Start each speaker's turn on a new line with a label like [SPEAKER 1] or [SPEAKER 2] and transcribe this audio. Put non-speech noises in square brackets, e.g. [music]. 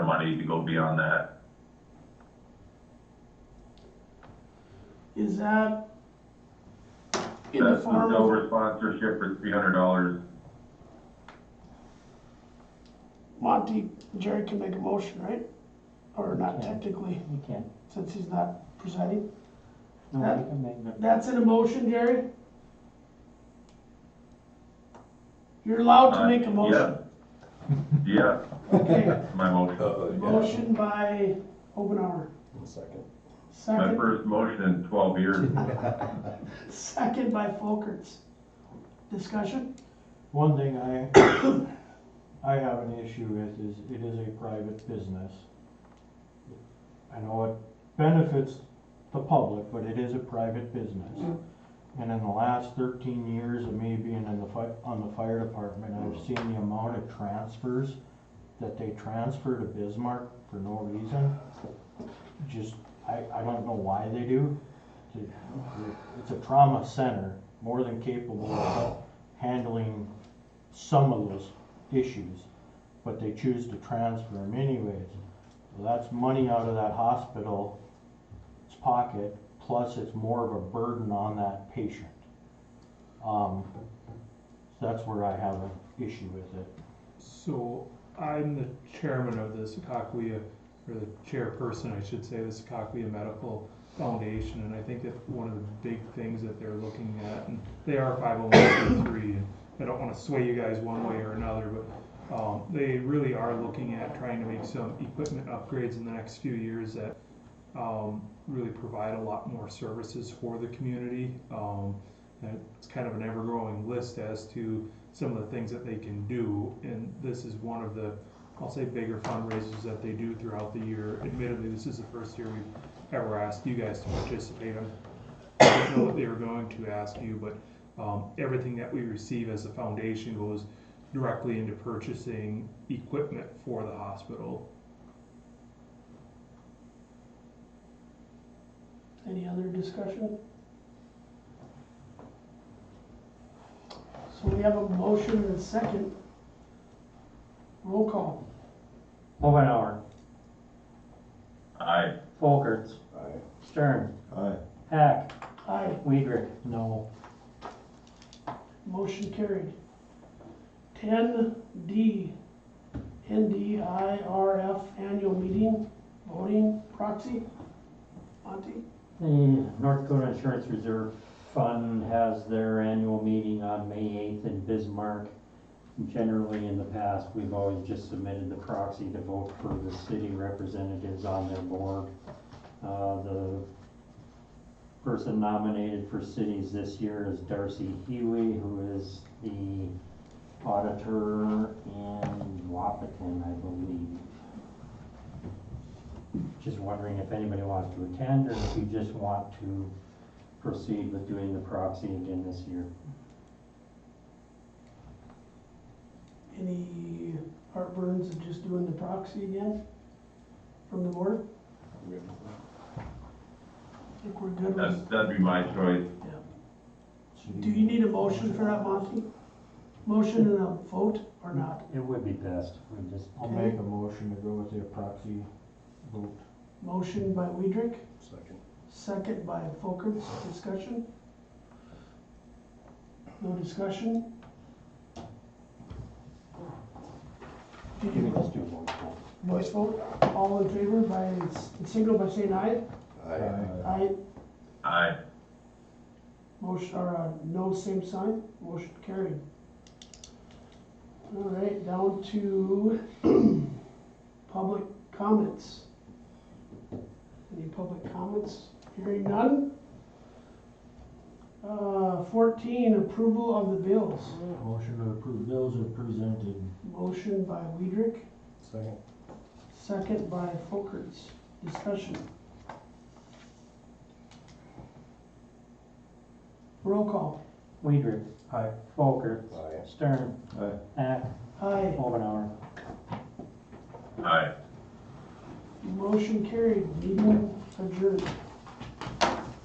[SPEAKER 1] money to go beyond that.
[SPEAKER 2] Is that in the
[SPEAKER 1] That's the
[SPEAKER 2] form of
[SPEAKER 1] Dover sponsorship for three hundred dollars.
[SPEAKER 2] Monty, Jerry can make a motion, right? Or not
[SPEAKER 3] Okay.
[SPEAKER 2] technically,
[SPEAKER 3] You can,
[SPEAKER 2] since he's not presiding.
[SPEAKER 3] no,
[SPEAKER 2] That-
[SPEAKER 3] you can make them.
[SPEAKER 2] That's in a motion, Jerry? You're allowed
[SPEAKER 1] Uh,
[SPEAKER 2] to make a motion.
[SPEAKER 1] Yeah,
[SPEAKER 2] Okay,
[SPEAKER 1] my motion,
[SPEAKER 2] motion by Obenauer,
[SPEAKER 4] Second.
[SPEAKER 1] my
[SPEAKER 2] second,
[SPEAKER 1] first motion in twelve years.
[SPEAKER 2] second by Folkerts. Discussion?
[SPEAKER 3] One thing I, I have an issue with is it is a private business. I know it benefits the public, but it is a private business. And in the last thirteen years of me being in the fi- on the fire department, I've seen the amount of transfers that they transfer to Bismarck for no reason. Just, I, I don't know why they do. It- It's a trauma center, more than capable of handling some of those issues, but they choose to transfer them anyways. Well, that's money out of that hospital's pocket, plus it's more of a burden on that patient. Um, so that's where I have an issue with it.
[SPEAKER 5] So I'm the chairman of the Secaucus, or the chairperson, I should say, of the Secaucus Medical Foundation, and I think that one of the big things that they're looking at, and they are five oh one three, and I don't wanna sway you guys one way or another, but, um, they really are looking at trying to make some equipment upgrades in the next few years that, um, really provide a lot more services for the community. Um, and it's kind of an ever-growing list as to, some of the things that they can do, and this is one of the, I'll say, bigger fundraisers that they do throughout the year. Admittedly, this is the first year we've ever asked you guys to participate. I'm- I didn't know that they were going to ask you, but um, everything that we receive as a foundation goes directly into purchasing equipment for the hospital.
[SPEAKER 2] Any other discussion? So we have a motion and a second. Roll call.
[SPEAKER 6] Omenauer,
[SPEAKER 1] Aye,
[SPEAKER 6] Folkerts,
[SPEAKER 4] Aye.
[SPEAKER 6] Stern,
[SPEAKER 4] Aye.
[SPEAKER 6] Hack,
[SPEAKER 2] Aye,
[SPEAKER 6] Weidrich.
[SPEAKER 3] No,
[SPEAKER 2] motion carried. Ten D, NDIRF annual meeting, voting proxy. Monty,
[SPEAKER 6] The North Dakota Insurance Reserve Fund has their annual meeting on May eighth in Bismarck. Generally, in the past, we've always just submitted the proxy to vote for the city representatives on their board. Uh, the person nominated for cities this year is Darcy Huey, who is the auditor in Wapaton, I believe. Just wondering if anybody wants to attend or if you just want to proceed with doing the proxy again this year.
[SPEAKER 2] any heartburns of just doing the proxy again from the board? I think we're good
[SPEAKER 1] that'd,
[SPEAKER 2] with,
[SPEAKER 1] that'd be my choice.
[SPEAKER 2] do you need a motion for that, Monty? Motion and a vote or not?
[SPEAKER 6] It would be best, we just,
[SPEAKER 3] I'll make a motion to go with the proxy vote.
[SPEAKER 2] Motion by Weidrich,
[SPEAKER 4] Second.
[SPEAKER 2] second by Folkerts, discussion? No discussion? Did
[SPEAKER 6] we
[SPEAKER 2] you
[SPEAKER 6] can just do one vote.
[SPEAKER 2] voice vote? All in favor by, signal by saying aye?
[SPEAKER 3] Aye.
[SPEAKER 2] Aye,
[SPEAKER 1] Aye,
[SPEAKER 2] motion, or, uh, no, same sign, motion carried. All right, down to [clears throat] public comments. Any public comments? Hearing none? Uh, fourteen, approval of the bills.
[SPEAKER 3] Motion to approve bills are presented.
[SPEAKER 2] Motion by Weidrich,
[SPEAKER 4] Second.
[SPEAKER 2] second by Folkerts. Discussion. Roll call.
[SPEAKER 6] Weidrich.
[SPEAKER 3] Aye.
[SPEAKER 6] Folker.
[SPEAKER 4] Aye.
[SPEAKER 6] Stern.
[SPEAKER 4] Aye.
[SPEAKER 6] Hack.
[SPEAKER 2] Aye.
[SPEAKER 6] Omenauer.
[SPEAKER 1] aye.
[SPEAKER 2] Motion carried, meeting adjourned.